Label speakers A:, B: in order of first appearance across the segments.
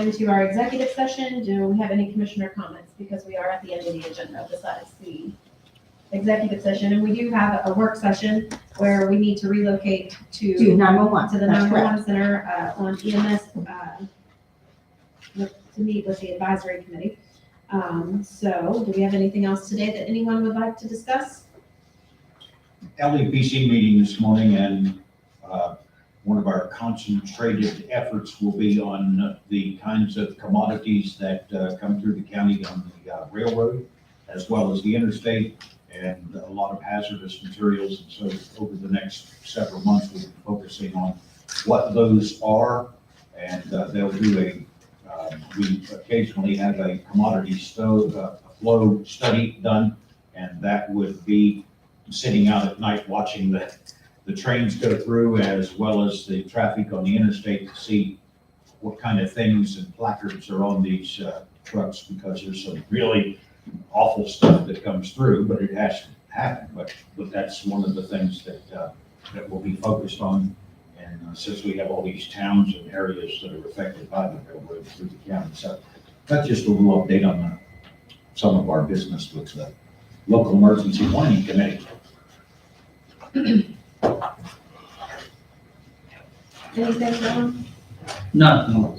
A: into our executive session. Do we have any commissioner comments? Because we are at the end of the agenda besides the executive session. And we do have a work session where we need to relocate
B: to
A: to,
B: nine-one-one,
A: to the
B: that's
A: 911
B: correct.
A: center uh, on EMS, uh, with- to meet with the advisory committee. Um, So do we have anything else today that anyone would like to discuss?
C: LEPC E meeting this morning, and uh, one of our concentrated efforts will be on the kinds of commodities that uh, come through the county on the uh, railroad, as well as the interstate, and a lot of hazardous materials. And so over the next several months, we'll be focusing on what those are, and uh, they'll do a, uh, we occasionally have a commodity stove, uh, flow study done, and that would be sitting out at night watching the, the trains go through as well as the traffic on the interstate to see what kind of things and placards are on these uh, trucks because there's some really awful stuff that comes through, but it has to happen. But, but that's one of the things that, uh, that will be focused on. And uh, since we have all these towns and areas that are affected by the railroad through the county. So that's just a little update on uh, some of our business with the local emergency planning committee.
A: Anything, Dawn?
D: Nothing.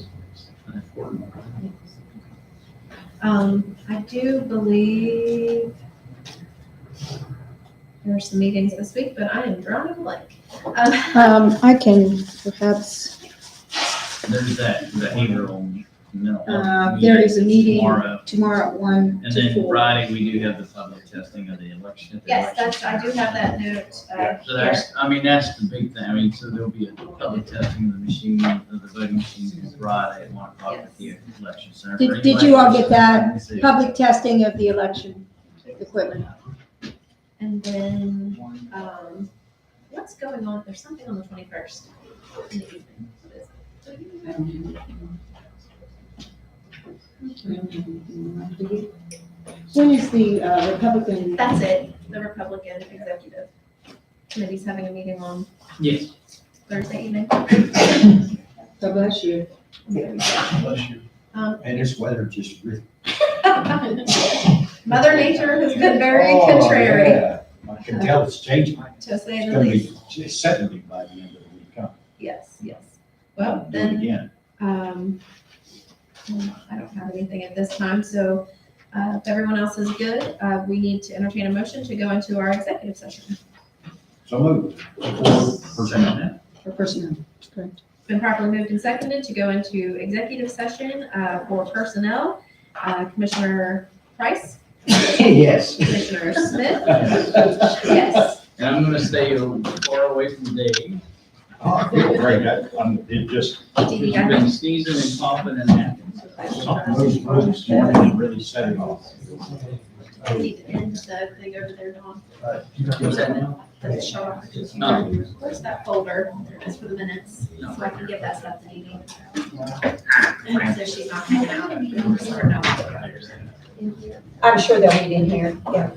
A: Um, I do believe there are some meetings this week, but I am drawing a blank. Um,
E: Um, I can perhaps,
D: There's that behavioral mental
E: Uh,
D: health
E: there is a meeting
D: Tomorrow,
E: tomorrow at one
D: and
E: to
D: then
E: four.
D: Friday, we do have the public testing of the election.
A: Yes, that's, I do have that note. uh,
D: So that's, I mean, that's the big thing, I mean, so there'll be a public testing of the machine, of the voting machines Friday at one o'clock at the election center.
B: Did- did you all get that? Public testing of the election equipment.
A: And then, um, what's going on? There's something on the twenty-first.
E: When is the uh, Republican?
A: That's it, the Republican Executive Committee's having a meeting on
D: Yes.
A: Thursday evening.
E: God bless you.
A: Um,
C: And this weather just. really-
A: Mother Nature has been very contrary,
C: Oh, yeah. I can tell it's changing.
A: to say
C: It's
A: the
C: gonna
A: least.
C: be just seventy by the end of the week. huh?
A: Yes, yes. Well,
C: Do it
A: then,
C: Again,
A: Um, I don't have anything at this time, so uh, if everyone else is good, uh, we need to entertain a motion to go into our executive session.
C: so moved. For personnel.
E: For personnel, correct.
A: It's been properly moved and seconded to go into executive session uh, for personnel. Uh, Commissioner Price,
C: Yes.
A: Commissioner Smith,
C: Oh,
A: yes.
D: And I'm gonna stay far away from Dave,
C: I feel great. I- I'm, it just,
D: he's
A: DEI.
D: been sneezing and coughing and hacking.
C: something moved through this morning and really set it off. Oh.
A: We need to end the thing over there, Dawn.
D: What's that now?
A: Does it show up?
D: It's not.
A: Where's that folder? It's for the minutes, so I can give that stuff to Dee Dee. So she's not hanging out. Or no.
B: I'm sure they'll meet in here, yeah.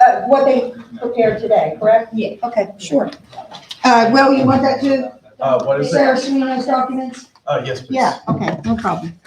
B: Uh, what they prepared today, correct?
E: Yeah, okay, sure. Uh, Will, you want that too?
F: Uh, what is it?
E: Sarah, some of those documents?
F: Uh, yes, please.
E: Yeah, okay, no problem.